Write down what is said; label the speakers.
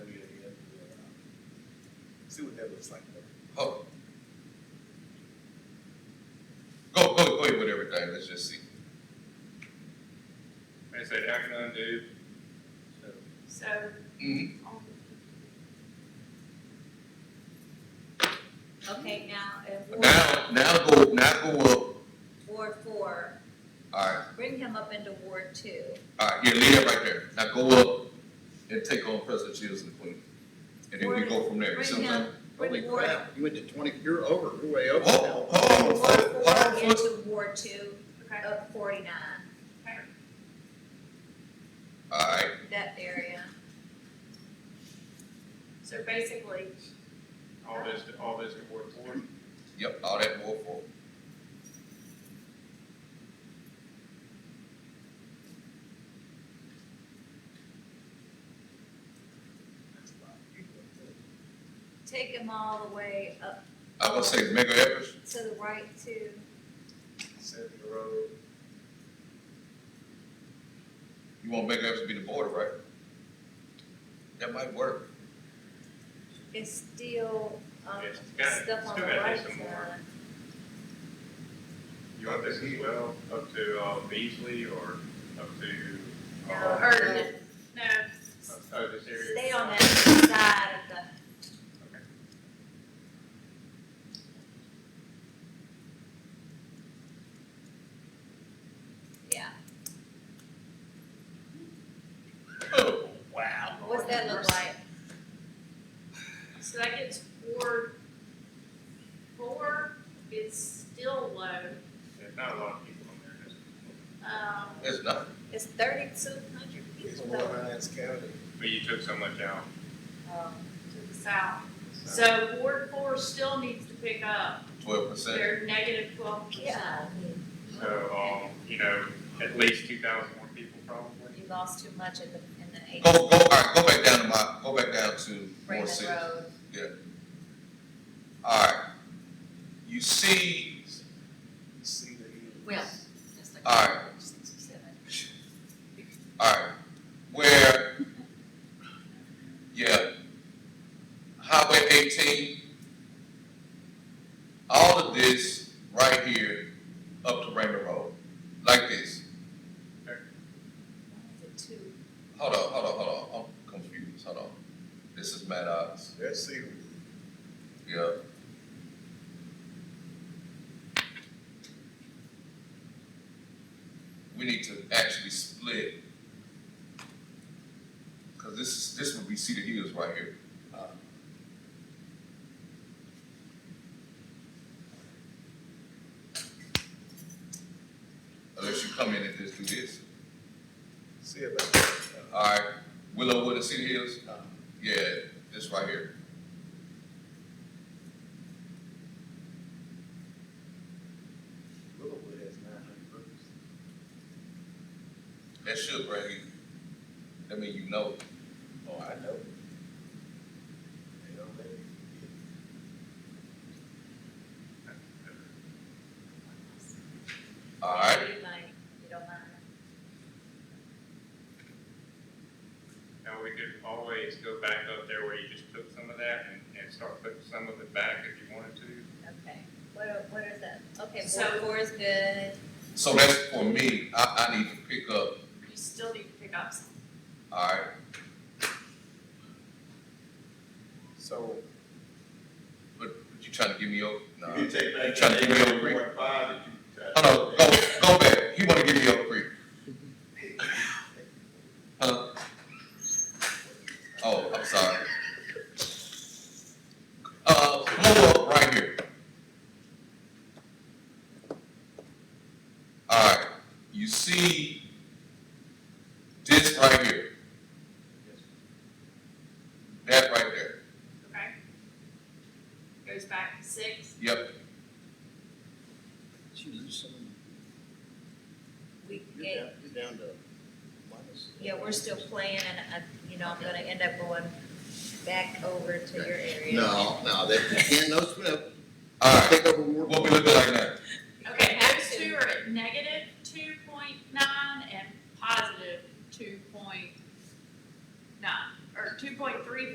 Speaker 1: see what that looks like.
Speaker 2: Oh. Go, go, go ahead with everything, let's just see.
Speaker 3: They said, how can I undo? So,
Speaker 4: So,
Speaker 2: Mhm.
Speaker 4: on- okay, now, if Ward,
Speaker 2: Now, now go, now go up,
Speaker 4: Ward four,
Speaker 2: alright,
Speaker 4: bring him up into Ward two.
Speaker 2: alright, yeah, leave that right there, now go up and take on President Shields and Queen. And then we go from there, you see
Speaker 4: Bring
Speaker 2: what I'm
Speaker 4: him,
Speaker 2: saying?
Speaker 4: bring Ward,
Speaker 1: you went Oh. to twenty, you're over, you're way over
Speaker 2: Hold,
Speaker 3: Oh,
Speaker 2: hold on,
Speaker 4: Ward
Speaker 2: hold on,
Speaker 4: four
Speaker 2: hold on.
Speaker 4: into Ward two,
Speaker 5: Okay.
Speaker 4: up forty-nine,
Speaker 2: Alright,
Speaker 4: that area.
Speaker 5: So basically,
Speaker 3: all this, all this in Ward four.
Speaker 2: yep, all that more for.
Speaker 4: Take him all the way up
Speaker 2: I gonna say mega efforts,
Speaker 4: to the right to,
Speaker 1: Seven road.
Speaker 2: you want mega efforts to be the border, right? That might work.
Speaker 4: it's still, um,
Speaker 3: Yes, it's gotta-
Speaker 4: stuff
Speaker 3: it's
Speaker 4: on
Speaker 3: still
Speaker 4: the
Speaker 3: gotta do
Speaker 4: right
Speaker 3: some more.
Speaker 4: side.
Speaker 3: You want this as well, up to, uh, Beasley or up to?
Speaker 4: No,
Speaker 3: uh,
Speaker 4: Erden,
Speaker 5: no,
Speaker 3: up- Oh, this area.
Speaker 4: stay on that side of the Yeah,
Speaker 2: Oh,
Speaker 3: Wow.
Speaker 4: what's that look like?
Speaker 5: so that gets Ward four, it's still low.
Speaker 3: There's not a lot of people on there, that's.
Speaker 5: Um,
Speaker 2: It's not,
Speaker 4: It's thirty-two hundred
Speaker 1: It's
Speaker 4: people
Speaker 1: more
Speaker 4: though,
Speaker 1: Hines County.
Speaker 3: But you took so much out.
Speaker 4: um,
Speaker 5: to the south.
Speaker 3: so-
Speaker 5: So Ward four still needs to pick up
Speaker 2: twelve percent,
Speaker 5: their negative twelve percent.
Speaker 4: yeah,
Speaker 3: So, um, you know, at least two thousand more people probably.
Speaker 4: you lost too much in the, in the eight.
Speaker 2: go, go, alright, go back down to my, go back down to more
Speaker 4: Raymond
Speaker 2: cities.
Speaker 4: Road,
Speaker 2: Alright, you see,
Speaker 1: You see the hills.
Speaker 4: well, that's like.
Speaker 2: Alright.
Speaker 4: six or seven.
Speaker 2: alright, where, yeah, Highway eighteen, all of this right here up to Raymond Road, like this.
Speaker 4: Why is it two?
Speaker 2: Hold on, hold on, hold on, I'm confused, hold on. This is Maddox,
Speaker 1: That's see,
Speaker 2: yeah. We need to actually split. Cause this is, this would be Cedar Hills right here.
Speaker 1: Uh,
Speaker 2: Unless you come in and just do this.
Speaker 1: see about that. Uh,
Speaker 2: Alright, Willowwood and Cedar Hills? Yeah, this right here.
Speaker 1: Willowwood has nine hundred roofs.
Speaker 2: That should bring you, that mean you know.
Speaker 1: Oh, I know. They don't let me
Speaker 2: Alright,
Speaker 4: You might, you don't mind.
Speaker 3: Now, we could always go back up there where you just took some of that and, and start putting some of it back if you wanted to.
Speaker 4: Okay, what, are- what is that? Okay,
Speaker 5: So-
Speaker 4: Ward four is good,
Speaker 2: so that's for me, I, I need to pick up,
Speaker 5: You still need to pick up some.
Speaker 2: alright,
Speaker 1: get. So,
Speaker 2: but but you trying to give me over? No.
Speaker 6: You take back
Speaker 2: Trying to
Speaker 6: that
Speaker 2: give me a
Speaker 6: eight
Speaker 2: break.
Speaker 6: point five that you. tried to
Speaker 2: Hold on,
Speaker 6: take.
Speaker 2: go, go back, he wanna give me over free. Huh? Oh, I'm sorry. Uh, blow up right here. Alright, you see this right here? That right there,
Speaker 5: Okay. Goes back to six.
Speaker 2: yep,
Speaker 4: we
Speaker 1: you're
Speaker 4: gave
Speaker 1: down, you're down to minus.
Speaker 4: Yeah, we're still playing, and I, you know, I'm gonna end up going back over to your area.
Speaker 7: No, no, that, again, no, no,
Speaker 2: alright,
Speaker 7: take over more.
Speaker 2: what we looking like now?
Speaker 5: Okay, those two are at negative two point nine and positive two point nine, or two point three